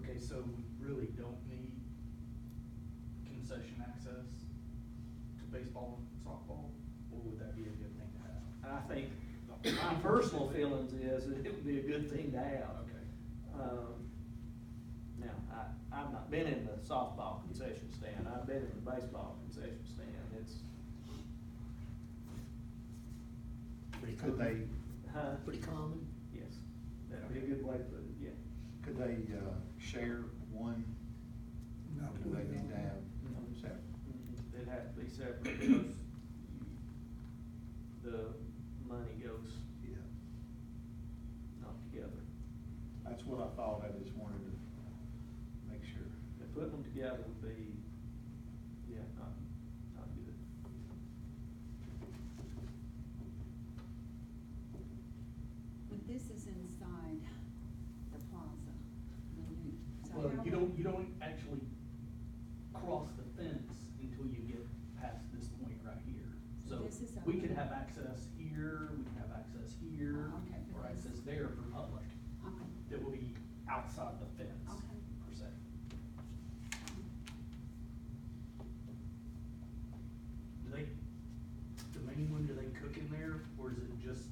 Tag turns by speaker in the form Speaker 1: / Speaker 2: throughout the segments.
Speaker 1: Okay, so we really don't need concession access to baseball and softball, or would that be a good thing to have?
Speaker 2: I think, my personal feelings is that it would be a good thing to have.
Speaker 1: Okay.
Speaker 2: Um, Now, I, I've not been in the softball concession stand, I've been in the baseball concession stand, it's,
Speaker 3: Pretty
Speaker 4: Could they,
Speaker 3: common.
Speaker 2: huh?
Speaker 3: Pretty common.
Speaker 2: Yes, that'd be a good way to, put it, yeah.
Speaker 4: could they, uh, share one?
Speaker 3: No.
Speaker 4: Or Do they need to have
Speaker 2: Mhm.
Speaker 4: separate?
Speaker 2: Mhm. It'd have to be separate because you- the money goes
Speaker 4: Yeah,
Speaker 2: not together.
Speaker 4: that's what I thought, I just wanted to make sure.
Speaker 2: But putting them together would be, yeah, not, not good.
Speaker 5: But this is inside the plaza. the new- so
Speaker 1: Well,
Speaker 5: how
Speaker 1: you
Speaker 5: would-
Speaker 1: don't, you don't actually cross the fence until you get past this point right here.
Speaker 5: So
Speaker 1: So
Speaker 5: this is
Speaker 1: we could
Speaker 5: open.
Speaker 1: have access here, we can have access here,
Speaker 5: Oh, okay, but
Speaker 1: or
Speaker 5: that's-
Speaker 1: access there for public
Speaker 5: Okay,
Speaker 1: that will be outside the fence
Speaker 5: Okay.
Speaker 1: per se. Do they, the main one, do they cook in there or is it just,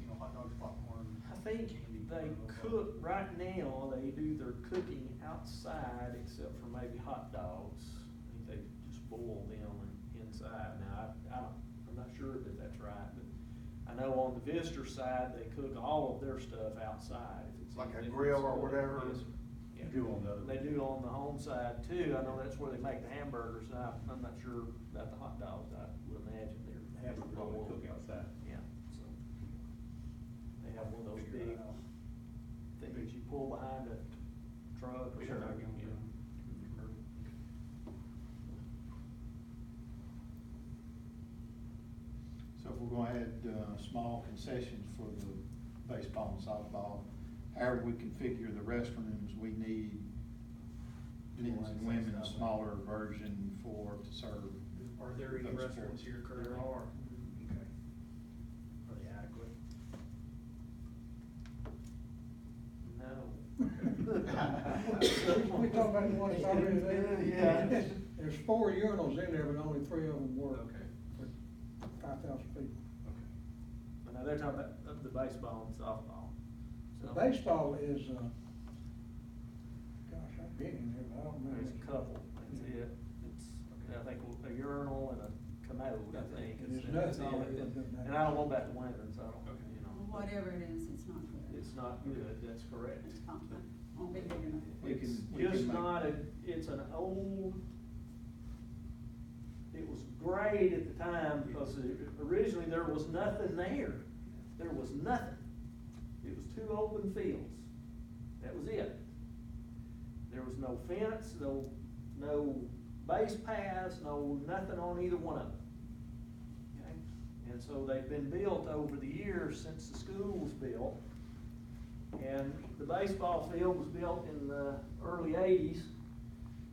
Speaker 1: you know, hot dogs, popcorn?
Speaker 2: I think
Speaker 1: candy,
Speaker 2: they
Speaker 1: blah, blah, blah?
Speaker 2: cook, right now, they do their cooking outside except for maybe hot dogs. I think they just boil them and inside. Now, I, I don't, I'm not sure that that's right, but I know on the visitor side, they cook all of their stuff outside. if it's
Speaker 4: Like a
Speaker 2: anything
Speaker 4: grill or
Speaker 2: that's-
Speaker 4: whatever
Speaker 2: Yes, sir.
Speaker 4: you
Speaker 2: Yeah.
Speaker 4: do on the other.
Speaker 2: They do on the home side too. I know that's where they make the hamburgers. and I, I'm not sure about the hot dogs. I would imagine they're. boiled.
Speaker 4: outside.
Speaker 2: Yeah, so. They have one of those
Speaker 4: Figure
Speaker 2: big
Speaker 4: that out.
Speaker 2: things you pull behind a truck or
Speaker 1: Sure.
Speaker 2: something.
Speaker 1: Yeah.
Speaker 4: So if we're gonna add, uh, small concessions for the baseball and softball, however we configure the restrooms, we need men's and women's smaller version for, to serve.
Speaker 1: Are there any
Speaker 4: those
Speaker 1: restaurants
Speaker 4: sports.
Speaker 1: here currently?
Speaker 2: There are.
Speaker 1: Okay. Are they adequate?
Speaker 2: No.
Speaker 6: We talked about the ones already there.
Speaker 2: Yeah.
Speaker 6: There's four urinals in there, but only three of them work.
Speaker 1: Okay.
Speaker 6: For five thousand people.
Speaker 1: Okay.
Speaker 2: But now they're talking about of the baseball and softball.
Speaker 6: The
Speaker 2: So-
Speaker 6: baseball is, uh, gosh, I've been in there, but I don't know.
Speaker 2: There's a couple, that's it. It's, I think a urinal and a commode, I think. is-
Speaker 6: There's nothing
Speaker 2: that's all it is. And I don't want that to winter, so I don't,
Speaker 1: Okay.
Speaker 2: you know.
Speaker 5: Whatever it is, it's not good.
Speaker 2: It's not good, that's correct.
Speaker 5: It's not good. Won't be big enough.
Speaker 4: We can-
Speaker 2: It's
Speaker 4: we can
Speaker 2: just
Speaker 4: make-
Speaker 2: not a, it's an old, it was great at the time because originally there was nothing there. There was nothing. It was two open fields. That was it. There was no fence, no, no base paths, no nothing on either one of them. Okay? And so they've been built over the years since the school was built. And the baseball field was built in the early eighties.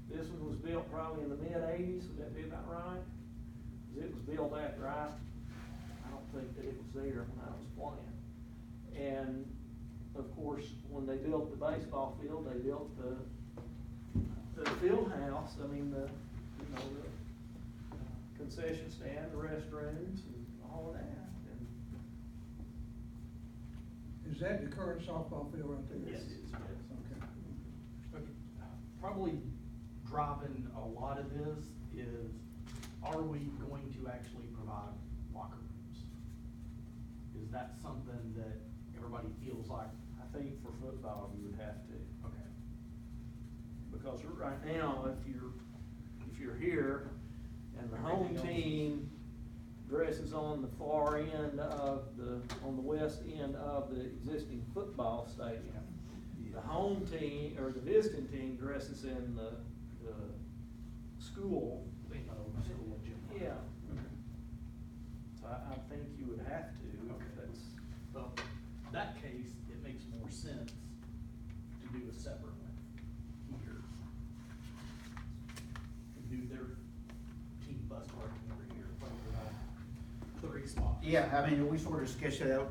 Speaker 2: This one was built probably in the mid eighties, would that be about right? 'Cause it was built after I, I don't think that it was there when I was playing. And of course, when they built the baseball field, they built the, the field house, I mean, the, you know, the uh, concession stand, the restrooms and all of that. And
Speaker 6: Is that the current softball field right there?
Speaker 2: Yes, it is, yes.
Speaker 6: Okay.
Speaker 1: Okay, Probably driving a lot of this is, are we going to actually provide locker rooms? Is that something that everybody feels like,
Speaker 2: I think for football, you would have to.
Speaker 1: okay,
Speaker 2: Because right now, if you're, if you're here and the home
Speaker 1: Everything else.
Speaker 2: team dresses on the far end of the, on the west end of the existing football stadium. The home team, or the visiting team dresses in the, the school.
Speaker 1: you know, school gym?
Speaker 2: Yeah, so I, I think you would have to.
Speaker 1: Okay.
Speaker 2: That's,
Speaker 1: Well, in that case, it makes more sense to do a separate one here. And do their team bus parking over here, probably about uh, three spots.
Speaker 3: Yeah, I mean, we sort of sketched that out